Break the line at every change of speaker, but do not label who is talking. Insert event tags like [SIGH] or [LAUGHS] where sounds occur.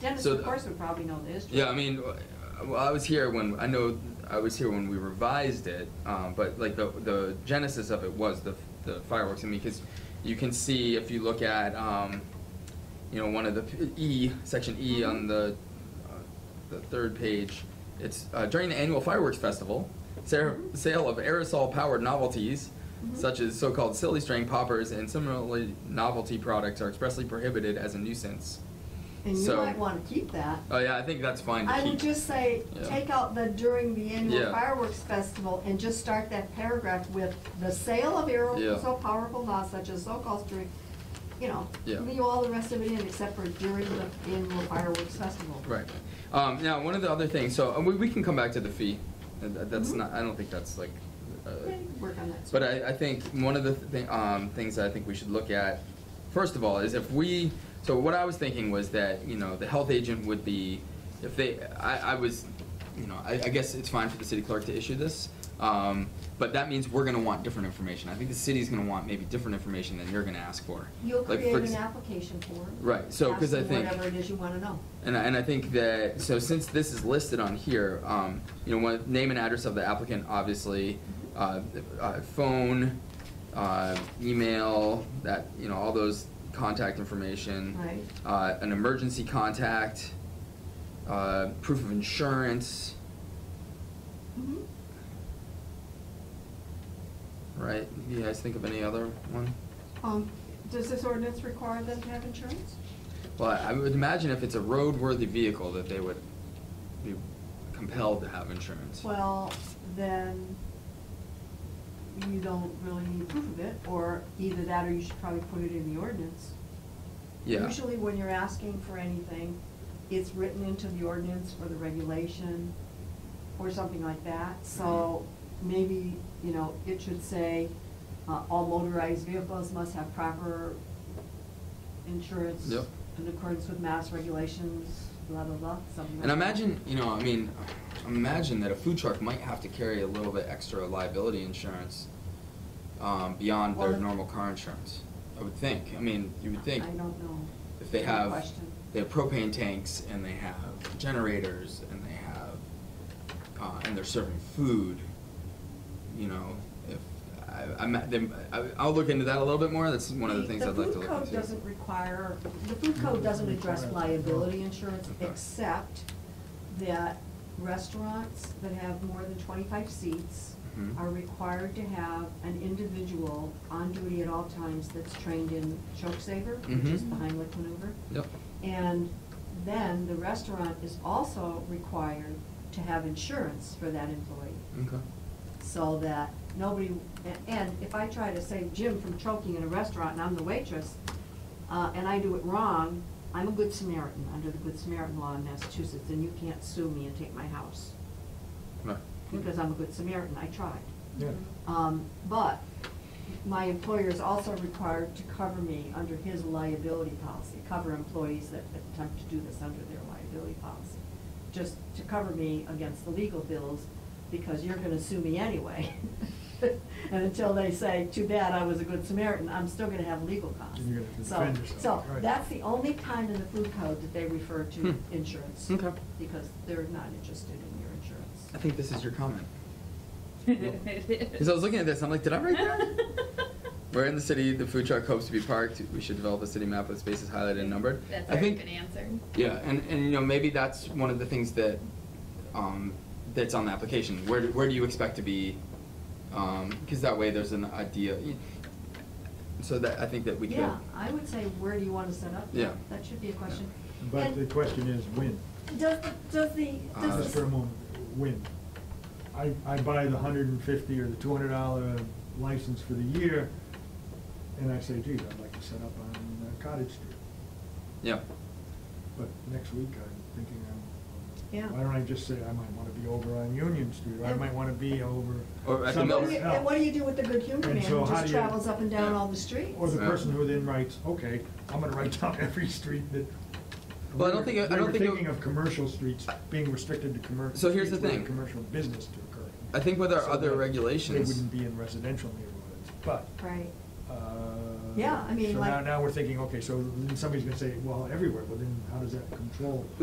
Dennis,
So
of
th-
course, would probably know the history.
Yeah, I mean, uh, well, I was here when, I know, I was here when we revised it, um, but like the, the genesis of it was the, the fireworks, I mean, cause you can see if you look at, um, you know, one of the p- E, section E on the, uh, the third page, it's, uh, during the annual fireworks festival, sa-
Mhm.
sale of aerosol-powered novelties,
Mhm.
such as so-called silly string poppers and similarly novelty products are expressly prohibited as a nuisance.
And you
so-
might wanna keep that.
Oh, yeah, I think that's fine to
I
keep.
would just say,
Yeah.
take out the during the annual
Yeah.
fireworks festival and just start that paragraph with the sale of arrows
Yeah.
so powerful now such as so-called during, you know,
Yeah.
leave all the rest of it in except for during the annual fireworks festival.
Right. Um, now, one of the other things, so uh, we, we can come back to the fee. Uh, that- That's
Mhm.
not, I don't think that's like. Uh,
Okay, Work on that.
but I, I think one of the th- um, things that I think we should look at, first of all, is if we. So what I was thinking was that you know the health agent would be, if they, I, I was, you know, I, I guess it's fine for the city clerk to issue this, um, but that means we're going to want different information. I think the city's going to want maybe different information than you're going to ask for.
You'll
Like, for
create
ex-
an application form.
Right, so, 'cause I
asking
think-
Whatever it is you wanna know.
And, I- and I think that, so since this is listed on here, um, you know, one, name and address of the applicant, obviously, uh, uh, phone, uh, email, that, you know, all those contact information.
Right.
Uh, an emergency contact, uh, proof of insurance,
Mhm.
right? You guys think of any other one?
Um, does this ordinance require them to have insurance?
Well, I would imagine if it's a roadworthy vehicle that they would be compelled to have insurance.
Well, then you don't really need proof of it, or either that or you should probably put it in the ordinance.
Yeah.
Usually when you're asking for anything, it's written into the ordinance or the regulation or something like that. So
Mm-hmm.
maybe, you know, it should say, uh, all motorized vehicles must have proper insurance
Yep.
in accordance with mass regulations, blah, blah, blah, something like
And
that.
imagine, you know, I mean, imagine that a food truck might have to carry a little bit extra liability insurance um, beyond their
Well, if-
normal car insurance. I would think. I mean, you would think
I don't know.
if they
Good
have
question.
they have propane tanks and they have generators and they have uh, and they're serving food. You know, if I, I'm, then I, I'll look into that a little bit more. That's one of the things I'd like to
The
look
food
into.
code doesn't require, the food code doesn't address liability insurance,
Okay.
except that restaurants that have more than twenty-five seats
Mhm.
are required to have an individual on duty at all times that's trained in choke saver, which is
Mhm.
the Heimlich maneuver.
Yep.
And then the restaurant is also required to have insurance for that employee
Okay.
so that nobody, a- and if I try to save Jim from choking in a restaurant and I'm the waitress, uh, and I do it wrong, I'm a good Samaritan, under the Good Samaritan law in Massachusetts, and you can't sue me and take my house,
Right.
because I'm a good Samaritan, I tried.
Yeah.
Um, but my employer is also required to cover me under his liability policy, cover employees that attempt to do this under their liability policy. Just to cover me against the legal bills, because you're gonna sue me anyway. [LAUGHS] And until they say, too bad, I was a good Samaritan, I'm still gonna have legal costs.
You're gonna have to
So-
defend yourself,
So,
right.
that's the only time in the food code that they refer to
Hmm.
insurance.
Okay.
Because they're not interested in your insurance.
I think this is your comment.
[LAUGHS]
Because I
Because
was looking at this, I'm like, did I write
[LAUGHS]
that? Where in the city the food truck hopes to be parked, we should develop a city map with spaces highlighted and numbered.
That's
I
a
think,
good answer.
Yeah, and, and you know maybe that's one of the things that, um, that's on the application. Where do, where do you expect to be? Um, because that way there's an idea. So that I think that we
Yeah,
could.
I would say, where do you want to set up?
Yeah.
That should be a question.
But
And
the question is, when?
Does, the- does the,
Uh,
does the.
Just for a moment, when? I, I buy the hundred and fifty or the two hundred dollar license for the year, and I say, gee, I'd like to set up on uh, Cottage Street.
Yeah.
But next week, I'm thinking
Yeah.
I'm, why don't I just say, I might wanna be over on Union Street, or I
And-
might wanna be over
Or at the
And
somewhere
what
Mills.
do you-
else.
and what do you do with the good humor
And
man
so
who
how
just
do you-
travels up and down
Yeah.
all the streets?
Or the
Yeah.
person who then writes, okay, I'm gonna write [LAUGHS] down every street that.
Well, I don't think- I
They
don't
were
think it-
thinking of commercial streets being restricted to commercial.
So here's the thing.
Commercial business to occur.
I think with our
So
other
that
regulations-
They wouldn't be in residential neighborhoods, but,
Right,
uh,
Yeah, I mean,
So now,
like-
now we're thinking, okay, so then somebody's gonna say, well, everywhere, but then how does that control?